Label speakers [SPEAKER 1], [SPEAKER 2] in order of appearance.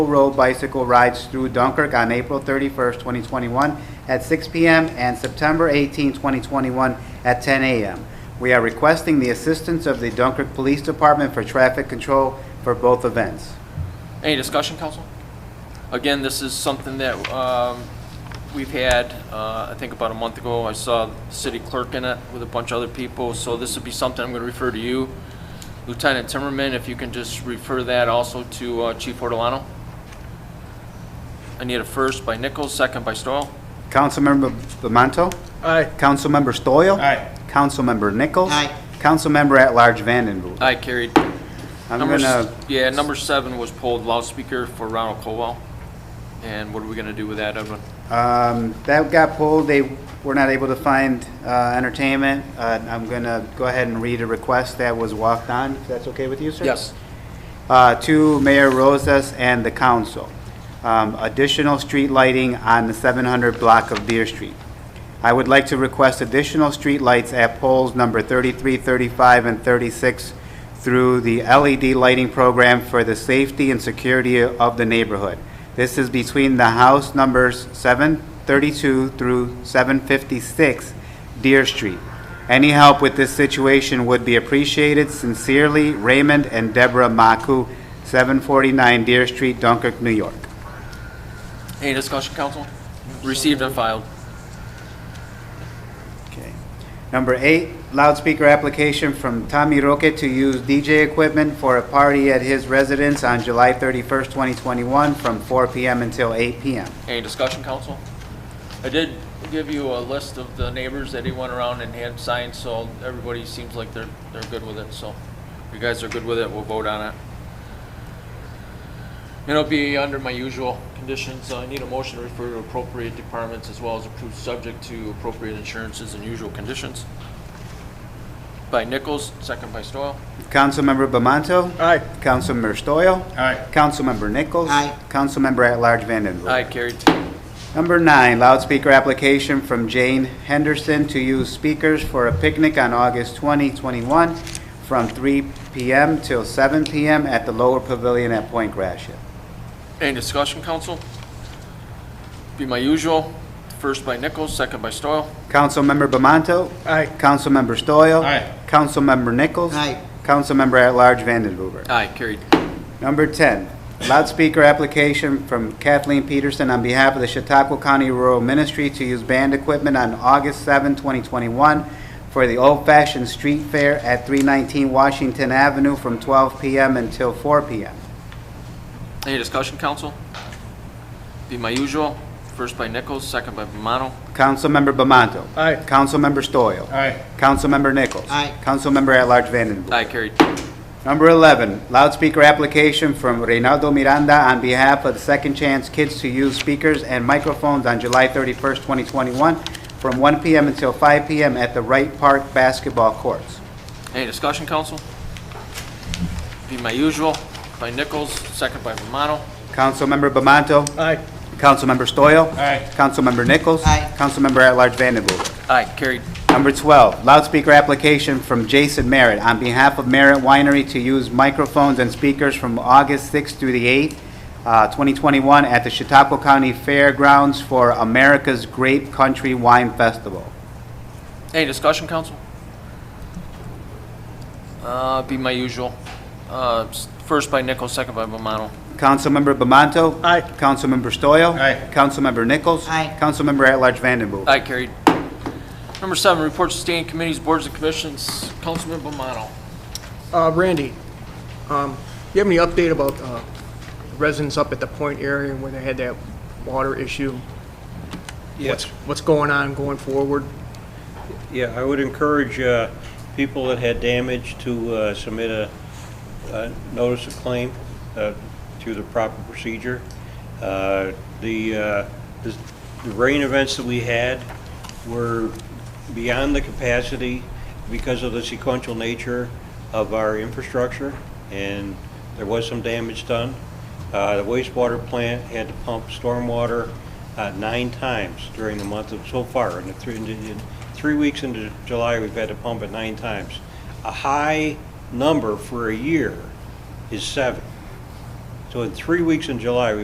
[SPEAKER 1] Road bicycle rides through Dunkirk on April 31st, 2021 at 6 p.m. and September 18, 2021 at 10 a.m. We are requesting the assistance of the Dunkirk Police Department for traffic control for both events.
[SPEAKER 2] Any discussion, council? Again, this is something that um, we've had, uh, I think about a month ago, I saw the city clerk in it with a bunch of other people, so this would be something I'm going to refer to you. Lieutenant Timmerman, if you can just refer that also to uh, Chief Ortolano. I need a first by Nichols, second by Stoyl.
[SPEAKER 1] Councilmember Bamanto?
[SPEAKER 3] Aye.
[SPEAKER 1] Councilmember Stoyl?
[SPEAKER 3] Aye.
[SPEAKER 1] Councilmember Nichols?
[SPEAKER 4] Aye.
[SPEAKER 1] Councilmember at-large Vandenboer?
[SPEAKER 2] Aye, carried.
[SPEAKER 1] I'm
[SPEAKER 2] Number s-
[SPEAKER 1] gonna,
[SPEAKER 2] Yeah, number seven was pulled loudspeaker for Ronald Colwell. And what are we going to do with that, Edwin?
[SPEAKER 1] um, that got pulled, they were not able to find, uh, entertainment. Uh, I'm gonna go ahead and read a request that was walked on, if that's okay with you, sir? uh, to Mayor Rosas and the council. Um, Additional street lighting on the 700 block of Deer Street. I would like to request additional street lights at poles number 33, 35, and 36 through the LED lighting program for the safety and security of the neighborhood. This is between the house numbers 732 through 756 Deer Street. Any help with this situation would be appreciated. Sincerely, Raymond and Deborah Maku, 749 Deer Street, Dunkirk, New York.
[SPEAKER 2] Any discussion, council? Received and filed.
[SPEAKER 1] Okay. Number eight, loudspeaker application from Tommy Roque to use DJ equipment for a party at his residence on July 31st, 2021, from 4 PM until 8 PM.
[SPEAKER 2] Any discussion, council? I did give you a list of the neighbors that he went around and had signed, so everybody seems like they're, they're good with it, so if you guys are good with it, we'll vote on it. It'll be under my usual conditions, I need a motion to refer to appropriate departments as well as approved subject to appropriate insurances and usual conditions. By Nichols, second by Stoyl.
[SPEAKER 1] Councilmember Bamanto?
[SPEAKER 3] Aye.
[SPEAKER 1] Councilmember Stoyl?
[SPEAKER 3] Aye.
[SPEAKER 1] Councilmember Nichols?
[SPEAKER 4] Aye.
[SPEAKER 1] Councilmember at-large Vandenberg?
[SPEAKER 2] Aye, carried.
[SPEAKER 1] Number nine, loudspeaker application from Jane Henderson to use speakers for a picnic on August 2021 from 3 PM till 7 PM at the Lower Pavilion at Point Gratia.
[SPEAKER 2] Any discussion, council? Be my usual, first by Nichols, second by Stoyl.
[SPEAKER 1] Councilmember Bamanto?
[SPEAKER 3] Aye.
[SPEAKER 1] Councilmember Stoyl?
[SPEAKER 3] Aye.
[SPEAKER 1] Councilmember Nichols?
[SPEAKER 4] Aye.
[SPEAKER 1] Councilmember at-large Vandenhuber?
[SPEAKER 2] Aye, carried.
[SPEAKER 1] Number 10, loudspeaker application from Kathleen Peterson on behalf of the Chautauqua County Rural Ministry to use band equipment on August 7, 2021 for the Old Fashioned Street Fair at 319 Washington Avenue from 12 p.m. until 4 p.m.
[SPEAKER 2] Any discussion, council? Be my usual, first by Nichols, second by Bomano.
[SPEAKER 1] Councilmember Bamanto.
[SPEAKER 3] Aye.
[SPEAKER 1] Councilmember Stoyl.
[SPEAKER 3] Aye.
[SPEAKER 1] Councilmember Nichols.
[SPEAKER 4] Aye.
[SPEAKER 1] Councilmember at-large Vandenboer.
[SPEAKER 2] Aye, carried.
[SPEAKER 1] Number 11, loudspeaker application from Reynaldo Miranda on behalf of the Second Chance Kids to Use Speakers and Microphones on July 31st, 2021, from 1 p.m. until 5 p.m. at the Wright Park Basketball Courts.
[SPEAKER 2] Any discussion, council? Be my usual, by Nichols, second by Bomano.
[SPEAKER 1] Councilmember Bamanto.
[SPEAKER 3] Aye.
[SPEAKER 1] Councilmember Stoyl.
[SPEAKER 3] Aye.
[SPEAKER 1] Councilmember Nichols.
[SPEAKER 4] Aye.
[SPEAKER 1] Councilmember at-large Vandenboer.
[SPEAKER 2] Aye, carried.
[SPEAKER 1] Number 12, loudspeaker application from Jason Merritt on behalf of Merritt Winery to use microphones and speakers from August 6th through the 8th, uh, 2021, at the Chautauqua County Fairgrounds for America's Grape Country Wine Festival.
[SPEAKER 2] Any discussion, council? Uh, be my usual, uh, s- first by Nichols, second by Bomano.
[SPEAKER 1] Councilmember Bamanto.
[SPEAKER 3] Aye.
[SPEAKER 1] Councilmember Stoyl.
[SPEAKER 3] Aye.
[SPEAKER 1] Councilmember Nichols.
[SPEAKER 4] Aye.
[SPEAKER 1] Councilmember at-large Vandenboer.
[SPEAKER 2] Aye, carried. Number seven, reports to standing committees, boards, and commissions. Councilman Bomano.
[SPEAKER 3] Uh, Randy, um, you have any update about, uh, residents up at the Point area where they had that water issue?
[SPEAKER 5] Yes,
[SPEAKER 3] What's going on going forward?
[SPEAKER 5] yeah, I would encourage uh, people that had damage to uh, submit a a notice of claim uh, through the proper procedure. Uh, The uh, the- the rain events that we had were beyond the capacity because of the sequential nature of our infrastructure, and there was some damage done. Uh, The wastewater plant had to pump stormwater uh, nine times during the month of, so far, in the three, in the- in three weeks into July, we've had to pump it nine times. A high number for a year is seven. So in three weeks in July, we